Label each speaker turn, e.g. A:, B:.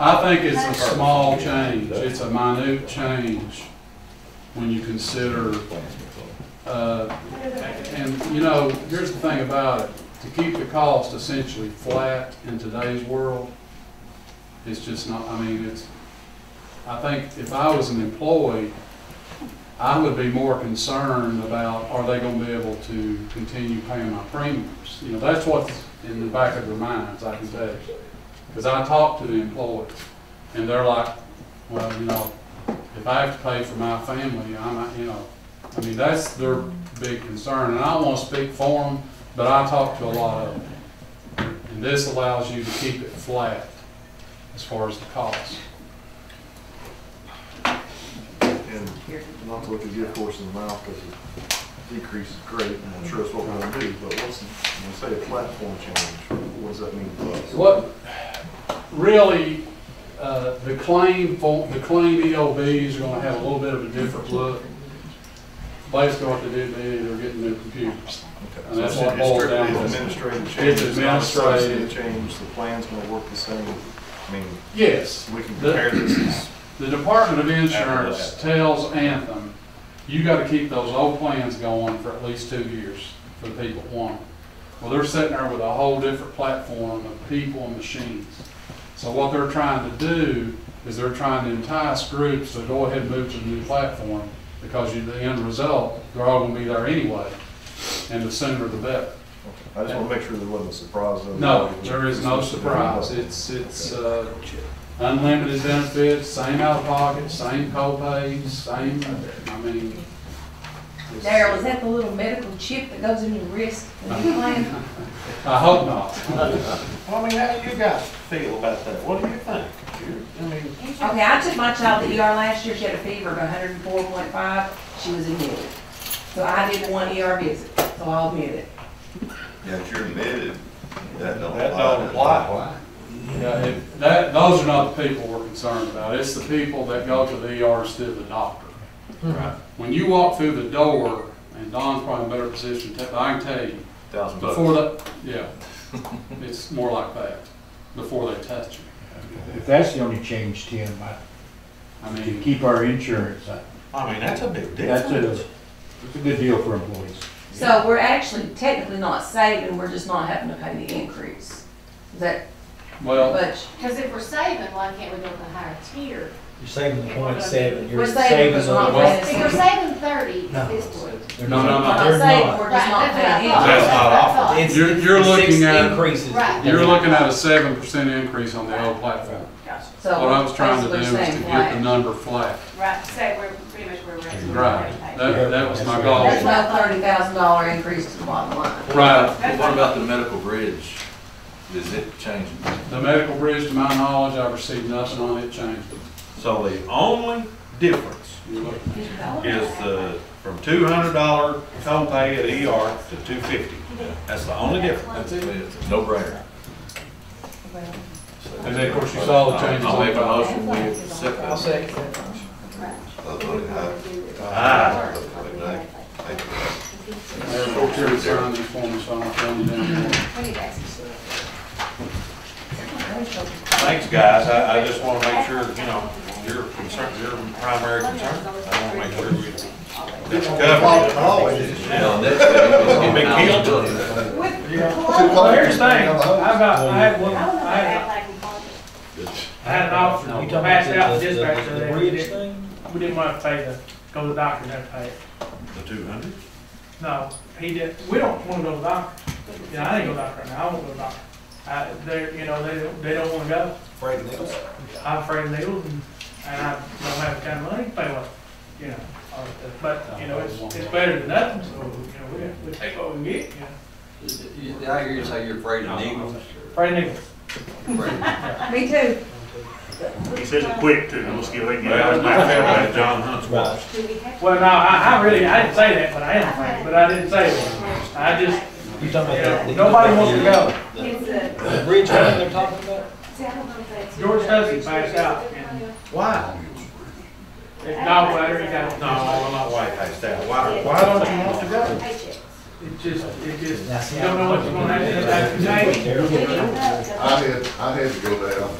A: I think it's a small change, it's a minute change when you consider, uh, and, you know, here's the thing about it, to keep the cost essentially flat in today's world, it's just not, I mean, it's, I think if I was an employee, I would be more concerned about, are they gonna be able to continue paying my premiums? You know, that's what's in the back of their minds, I can tell you. Because I talk to the employees, and they're like, well, you know, if I have to pay for my family, I'm, not- you know, I mean, that's their big concern, and I don't want to speak for them, but I talk to a lot of them. And this allows you to keep it flat as far as the cost.
B: And not to look a gift horse in the mouth, because the decrease is great, and I'm sure that's what we're gonna do, but what's, when we say a platform change, what does that mean to us?
A: What, really, uh, the claim, for- the claim EOB is gonna have a little bit of a different look. Basically, what they did, they, they're getting new computers.
B: Okay,
A: And that's
B: so
A: what
B: it's
A: boils
B: strictly
A: down to.
B: Administrative change.
A: It's
B: not a substantive
A: administrative.
B: Change, the plan's gonna work the same, I mean,
A: Yes,
B: we can
A: The-
B: compare this as,
A: The Department of Insurance tells Anthem, you gotta keep those old plans going for at least two years for the people that want them. Well, they're sitting there with a whole different platform of people and machines. So what they're trying to do is they're trying to entice groups to go ahead and move to the new platform because you, the end result, they're all gonna be there anyway, and the sooner the better.
B: I just wanna make sure there wasn't a surprise. though.
A: No, there is no surprise. It's, it's uh, unlimited benefits, same out-of-pocket, same co-pays, same, I mean. it's-
C: Daryl, is that the little medical chip that goes in your wrist when you plan?
A: I hope not.
D: Well, I mean, how do you guys feel about that? What do you think? I mean,
C: Okay, I took my child to ER last year, she had a fever of hundred and four point five, she was admitted. So I did one ER visit, so I'll admit it.
E: Yeah, if you're admitted, that don't
D: That uh, don't apply.
A: Yeah, it- That, those are not the people we're concerned about. It's the people that go to the ER instead of the doctor. Right. When you walk through the door, and Don's probably in a better position, to tell- I can tell you,
B: Thousand bucks.
A: before that, yeah, it's more like that, before they touch you.
F: If that's the only change, Tim, I,
A: I
F: to
A: mean,
F: keep our insurance, I-
D: I mean, that's a big
F: that's a,
D: difference.
F: it's a good deal for employees.
C: So we're actually technically not saving, we're just not having to pay the increase. Is that
A: well.
C: much?
G: Because if we're saving, why can't we go with a higher tier?
H: You're saving the point seven,
C: We're
H: you're
C: saving,
H: saving
C: but not
H: on.
A: Well-
G: If we're
C: paying.
G: saving thirty,
H: No.
G: this would.
H: They're
A: No, no,
H: not-
A: no.
C: We're
H: They're
C: not saving,
H: not.
C: we're just not
G: Right, that's
C: paying
G: what I
C: it.
G: thought.
D: That's not
G: That's what I thought.
H: It's-
A: You're- you're
H: it's six
A: looking at-
H: Increases.
G: Right.
A: You're looking at a seven percent increase on the old platform.
C: So
A: What I was trying to do
C: basically
A: is to
C: saying
A: get the
C: flat.
A: number flat.
G: Right, so we're pretty much where we're at.
A: Right. That, that was my goal.
C: There's
A: Right.
C: no thirty thousand dollar increase to the bottom line.
E: Well, What about the medical bridge? Does it change?
A: The medical bridge, to my knowledge, I've received nothing on it changed.
I: So the only difference is the, from two hundred dollar copay at ER to two fifty. That's the only difference.
E: That's it. It's a No-brainer.
A: And then, of course, you saw the changes
E: I'll
A: on
E: make a
A: the,
E: motion, we accept
H: I'll
E: that.
H: second that.
I: Ah.
E: uh,
A: Mayor Procure's sign these forms, so I'm telling you now.
I: Thanks, guys. I, I just wanna make sure, you know, your concern, your primary concern. I wanna make sure we, that's covered.
E: Now, next thing is-
I: Big deal.
H: Well, here's the thing, I about, I had one, I had, I had an officer,
A: You
H: we
A: talking
H: passed out the
J: the-
H: dispatch
J: the-
H: today,
J: the
H: we
J: bridge
H: didn't, we didn't want to pay the, go to the doctor and have to pay it.
I: The two hundred?
H: No, he did, we don't want to go to the doctor, you know, I didn't go to the doctor right now, I won't go to the doctor. I, they're, you know, they, don't- they don't want to go.
D: Afraid of this?
H: I'm afraid of needles and, and I don't have the kind of money to pay one, you know, or, the- but, you know, it's, it's better than nothing, so, you know, we, we take what we get, you know.
J: I hear you say you're afraid of needles.
H: Afraid of needles.
C: Me too.
K: He says it quick too, let's get away.
I: Well, my family, had John Hunt's watch.
H: Well, no, I, I really, I didn't say that, but I am afraid, but I didn't say that. I just,
J: You talking
H: you
J: about
H: know,
J: that?
H: nobody wants to go.
J: The bridge one they're talking about?
H: George Hussey passed out, and
D: Why?
H: his gallbladder, he got,
I: No, I'm not white past that. Why, why don't you want to go?
H: it just, it just, you don't know what you're gonna have to, have to change.
B: I had, I had to go down